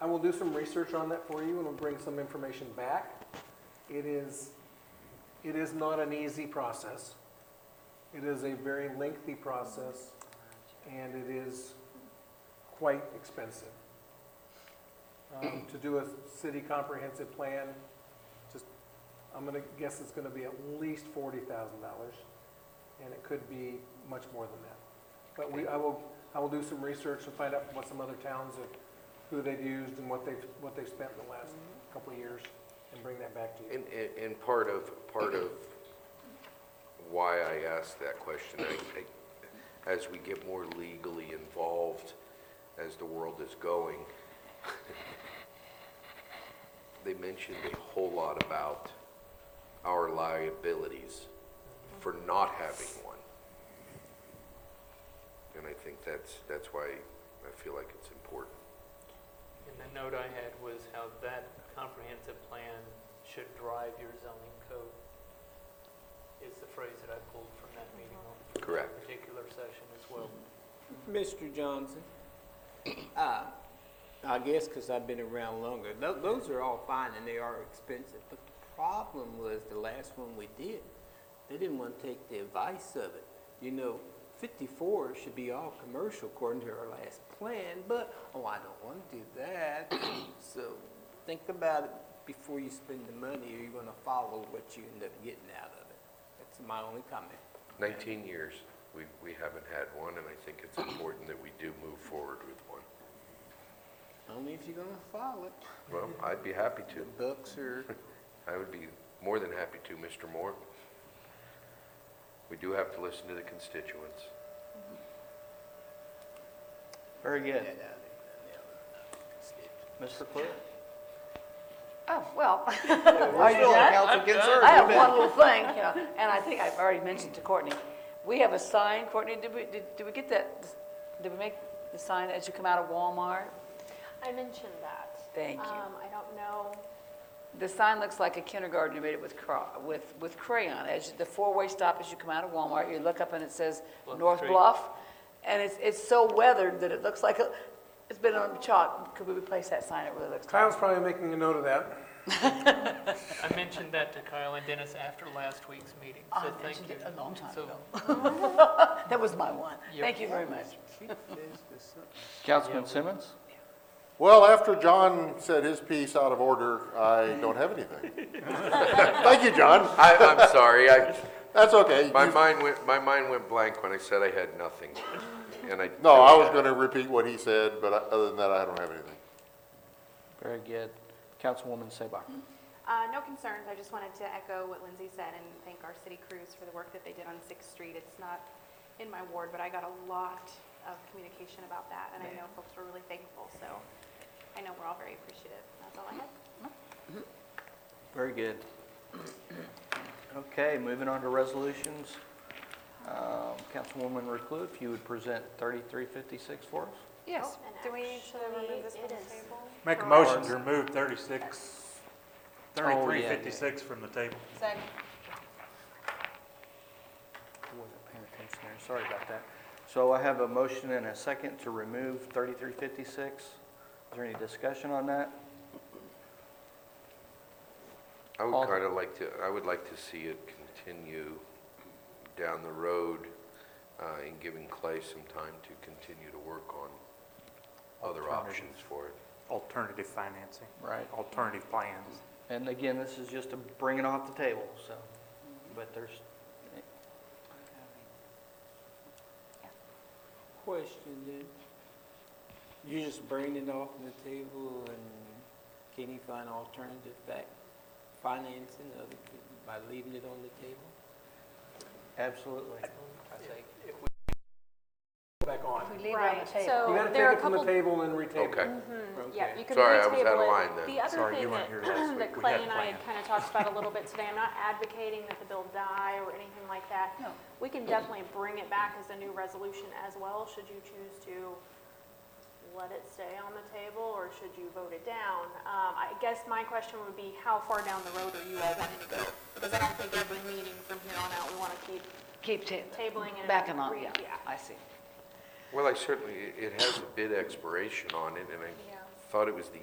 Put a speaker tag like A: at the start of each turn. A: I will do some research on that for you and will bring some information back. It is, it is not an easy process. It is a very lengthy process and it is quite expensive. Um, To do a city comprehensive plan, just, I'm gonna guess it's gonna be at least forty thousand dollars. And it could be much more than that. But we, I will, I will do some research and find out what some other towns have who they've used and what they've, what they've spent in the last couple of years, and bring that back to you.
B: And, and- and part of, part of why I asked that question, I, I, as we get more legally involved, as the world is going, they mentioned a whole lot about our liabilities for not having one. And I think that's, that's why I feel like it's important.
C: And the note I had was how that comprehensive plan should drive your zoning code, is the phrase that I pulled from that meeting on that
B: Correct.
C: particular session as well.
D: Mr. Johnson, uh, I guess because I've been around longer, tho- those are all fine and they are expensive, but the problem was the last one we did, they didn't want to take the advice of it. You know, 54 should be all commercial according to our last plan, but, oh, I don't want to do that. So think about it before you spend the money, or you're going to follow what you end up getting out of it. That's my only comment.
B: 19 years, we, we haven't had one, and I think it's important that we do move forward with one.
D: Only if you're going to follow it.
B: Well, I'd be happy
D: The
B: to.
D: bucks are
B: I would be more than happy to, Mr. Moore. We do have to listen to the constituents.
E: Very good. Mr. Clerk?
F: Oh, well,
E: We're still on council concern.
F: I have one little thing, you know, and I think I've already mentioned to Courtney. We have a sign, Courtney, did we, did, did we get that, did we make the sign as you come out of Walmart?
G: I mentioned that.
F: Thank you.
G: Um, I don't know,
F: The sign looks like a kindergartner made it with cra, with, with crayon. As you- the four-way stop as you come out of Walmart, you look up and it says
C: Bluff
F: North
C: Street.
F: Bluff. And it's, it's so weathered that it looks like, a- it's been on chalk. Could we replace that sign? It really looks.
A: Kyle's probably making a note of that.
C: I mentioned that to Kyle and Dennis after last week's meeting,
F: I
C: so thank
F: mentioned
C: you.
F: it a long time
C: So,
F: ago. That was my one.
C: Yep.
F: Thank you very much.
E: Councilman Simmons?
H: Well, after John said his piece out of order, I don't have anything. Thank you, John.
B: I, I'm sorry, I,
H: That's okay.
B: my
H: You-
B: mind went, my mind went blank when I said I had nothing, and I.
H: No, I was going to repeat what he said, but I- other than that, I don't have anything.
E: Very good. Councilwoman Sabah?
G: uh, no concerns, I just wanted to echo what Lindsay said and thank our city crews for the work that they did on Sixth Street. It's not in my ward, but I got a lot of communication about that, and I know folks were really thankful, so I know we're all very appreciative. That's all I have.
E: Very good. Okay, moving on to resolutions. Um, Councilwoman Reclue, if you would present 3356 for us?
F: Yes.
G: Do we need to remove this from the table?
I: Make a motion to remove 36,
E: Oh, yeah, yeah.
I: 3356 from the table.
F: Second.
E: I wasn't paying attention there, sorry about that. So I have a motion and a second to remove 3356. Is there any discussion on that?
B: I
E: All-
B: would kind of like to, I would like to see it continue down the road uh, and giving Clay some time to continue to work on other options for it.
I: Alternative financing.
E: Right.
I: Alternative plans.
E: And again, this is just to bring it off the table, so, but there's,
D: Question then, you just bring it off the table and can you find alternative fac financing of it by leaving it on the table?
E: absolutely.
A: Back on.
F: We leave it on the
A: You gotta
F: table.
G: So
A: take
G: Oh, there are
A: it
G: a
A: from the
G: couple
A: table and retable.
B: Okay,
G: Yeah, you can
B: Sorry, I was
G: retable
B: out of
G: it.
B: line then.
G: The other
I: Sorry,
G: thing
I: you weren't
G: that,
I: here last week.
G: that
I: We
G: Clay
I: had
G: and I had
I: planned.
G: kind of talked about a little bit today, I'm not advocating that the bill die or anything like that.
F: No.
G: We can definitely bring it back as a new resolution as well, should you choose to let it stay on the table, or should you vote it down? Um, I guess my question would be, how far down the road are you all wanting to go? Because I don't think every meeting from here on out, we want to keep
F: Keep ta-
G: tabling and.
F: Back and on,
G: re-
F: yeah, I see.
B: well, I certainly, it has a bid expiration on it, and I
G: Yeah.
B: thought it was the